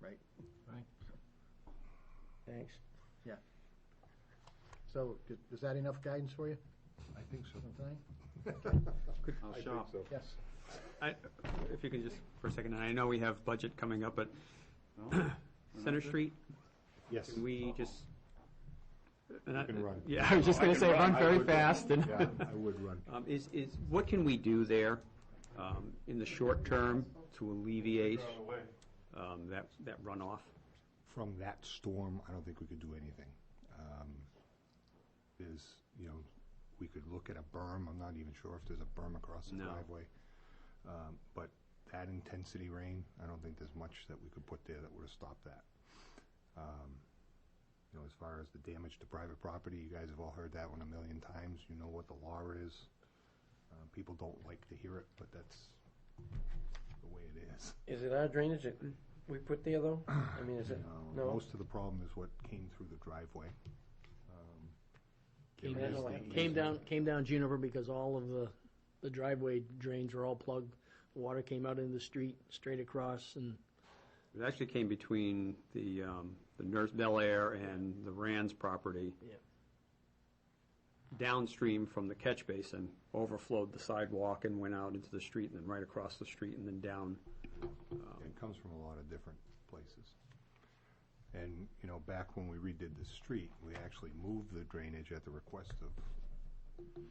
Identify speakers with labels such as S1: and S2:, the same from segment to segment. S1: right?
S2: Thanks.
S1: So, d- is that enough guidance for you,
S3: I think so.
S1: Nathaniel?
S4: I'll
S3: I think
S4: shop.
S3: so.
S1: Yes.
S5: I- If you could just, for a second, and I know we have budget coming up, but
S4: No? We're not
S5: Center
S4: good?
S5: Street,
S3: Yes.
S5: can we just? You
S3: can run.
S5: Yeah, I was just
S4: I
S5: gonna
S4: can
S5: say,
S4: run.
S5: run
S4: I
S5: very
S4: would run.
S5: fast and.
S3: Yeah, I would run.
S5: Um, Is, is, what can we do there um, in the short term to alleviate um, that, that runoff?
S3: From that storm, I don't think we could do anything. Um, There's, you know, we could look at a berm, I'm not even sure if there's a berm across the
S5: No.
S3: driveway. Um, But that intensity rain, I don't think there's much that we could put there that would have stopped that. Um, You know, as far as the damage to private property, you guys have all heard that one a million times, you know what the law is. Uh, People don't like to hear it, but that's the way it is.
S2: Is it our drainage that we put there, though? I mean, is it,
S3: No,
S2: no?
S3: Um, Most of the problem is what came through the driveway. Um,
S6: Came
S3: there
S2: down
S3: is
S2: the
S3: the
S2: line.
S6: Came
S3: easement.
S6: down, came down Juniper because all of the, the driveway drains were all plugged. Water came out into the street, straight across, and
S5: It actually came between the, um, the nurse Bel Air and the Rand's property.
S6: Yeah.
S5: Downstream from the catch basin, overflowed the sidewalk and went out into the street and then right across the street and then down.
S3: It comes from a lot of different places. And, you know, back when we redid the street, we actually moved the drainage at the request of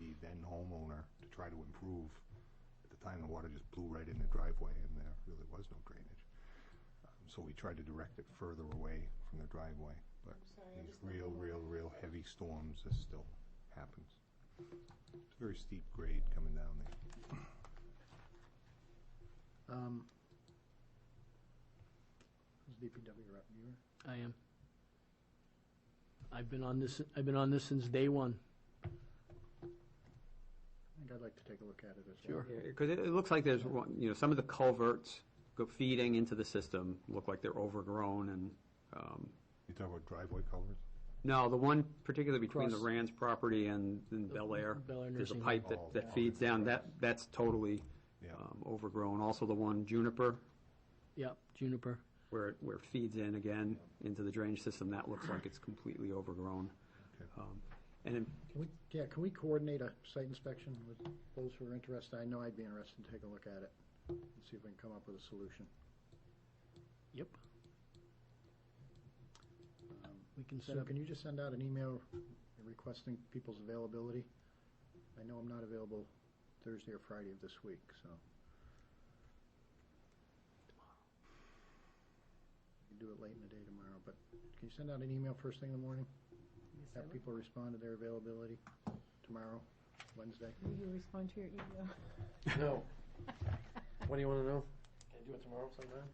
S3: the then homeowner to try to improve. At the time, the water just blew right in the driveway and there really was no drainage. Um, So we tried to direct it further away from the driveway, but these real, real, real heavy storms, this still happens. It's a very steep grade coming down there.
S1: Um, who's DPW rep, you? or-
S6: I am. I've been on this, I've been on this since day one.
S1: I think I'd like to take a look at it as well.
S6: Sure.
S5: Because it, it looks like there's, one- you know, some of the culverts go feeding into the system, look like they're overgrown and, um,
S3: You talk about driveway culverts?
S5: No, the one particularly between the
S6: Across-
S5: Rand's property and and Bel Air.
S6: Bel Air
S5: There's a
S6: Nursing
S5: pipe that,
S3: Home. Oh,
S5: that feeds down, that, that's totally
S3: Yeah.
S5: um, overgrown. Also the one Juniper,
S6: Yep, Juniper.
S5: where, it- where it feeds in again into the drainage system, that looks like it's completely overgrown.
S3: Okay.
S5: Um, And in-
S1: Can we, yeah, can we coordinate a site inspection with those who are interested? I know I'd be interested to take a look at it and see if we can come up with a solution.
S6: Yep.
S1: Um,
S6: We can set
S1: So
S6: up,
S1: can you just send out an email requesting people's availability? I know I'm not available Thursday or Friday of this week, so. You can do it late in the day tomorrow, but can you send out an email first thing in the morning? Have people respond to their availability tomorrow, Wednesday?
S7: Will you respond to your email?
S2: No. What do you wanna know? Can I do it tomorrow sometime?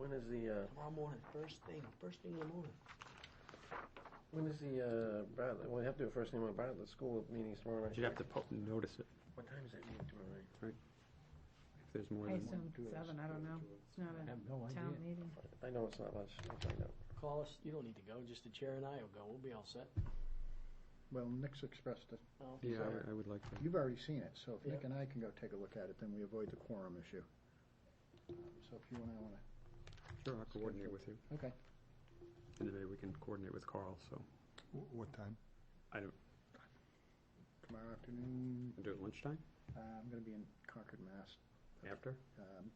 S2: When is the, uh? Tomorrow morning, first thing, first thing in the morning. When is the, uh, Bartlett, well, we have to do it first thing with Bartlett, school meetings tomorrow night.
S5: you'd have to po- notice it
S2: What time is that meeting tomorrow night?
S5: if there's more
S7: I
S5: than.
S7: assume seven, I don't know. It's not
S2: have no
S7: a town meeting.
S2: I know it's not much, I'll find out.
S6: call us, you don't need to go, just the chair and I will go, we'll be all set.
S1: Well, Nick's expressed it.
S6: Oh,
S5: Yeah,
S1: Sorry.
S5: I- I would like to.
S1: You've already seen it, so if Nick
S6: Yeah.
S1: and I can go take a look at it, then we avoid the quorum issue. Um, So if you and I want to,
S5: Sure, I'll coordinate with you.
S1: okay.
S5: And then maybe we can coordinate with Carl, so
S3: Wh- What time?
S5: I don't,
S1: Tomorrow afternoon,
S5: do it lunchtime
S1: uh, I'm going to be in Concord, Mass.
S5: after?
S1: Um,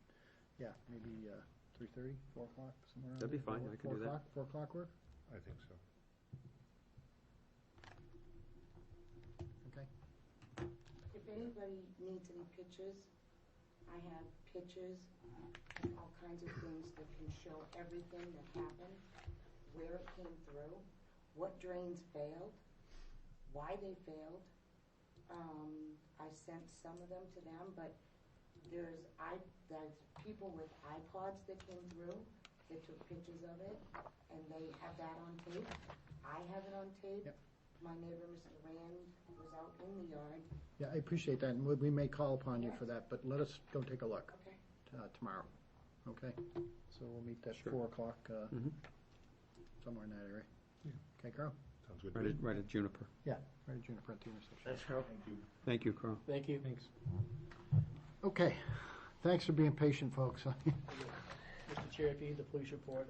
S1: Yeah, maybe uh, 3:30, 4 o'clock, somewhere around
S5: That'd be
S1: there.
S5: fine,
S1: Four-
S5: I can
S1: four
S5: do that.
S1: o'clock- 4 o'clock work?
S3: I think so.
S1: Okay.
S8: If anybody needs any pictures, I have pictures uh, and all kinds of things that can show everything that happened, where it came through, what drains failed, why they failed. Um, I sent some of them to them, but there's i, there's people with iPods that came through that took pictures of it, and they have that on tape. I have it on tape.
S1: Yep.
S8: My neighbor, Mr. Rand, was out in the yard,
S1: Yeah, I appreciate that, and we- we may call upon you for that, but let us go take a look
S8: okay?
S1: uh, tomorrow, okay? So we'll meet at
S5: Sure.
S1: 4 o'clock, uh,
S5: Mhm.
S1: somewhere in that area. Okay, Carl?
S3: Sounds good. to
S5: Right
S3: me.
S5: at, right at Juniper.
S1: Yeah, right at Juniper at the intersection.
S2: That's how,
S5: Thank you, Carl.
S6: thank you.
S1: Thanks. Okay, thanks for being patient, folks.
S6: Mr. Chair, if you need the police report,